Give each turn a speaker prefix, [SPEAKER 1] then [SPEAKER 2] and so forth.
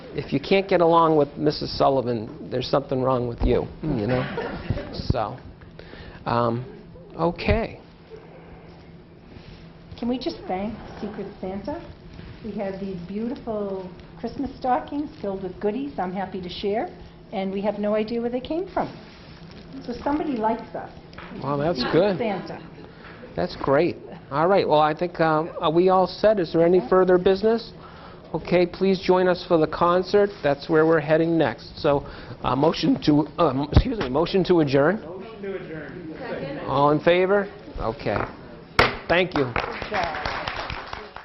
[SPEAKER 1] if you can't get along with Mrs. Sullivan, there's something wrong with you, you know? So, um, okay.
[SPEAKER 2] Can we just thank Secret Santa? We have these beautiful Christmas stockings filled with goodies I'm happy to share, and we have no idea where they came from. So somebody likes us.
[SPEAKER 1] Well, that's
[SPEAKER 2] Secret
[SPEAKER 1] good.
[SPEAKER 2] Santa.
[SPEAKER 1] That's great. All right, well, I think, um, are we all set? Is there any further business? Okay, please join us for the concert. That's where we're heading next. So, uh, motion to, um, excuse me, motion to adjourn? Motion to adjourn. All in favor? Okay. Thank you.
[SPEAKER 2] Good job.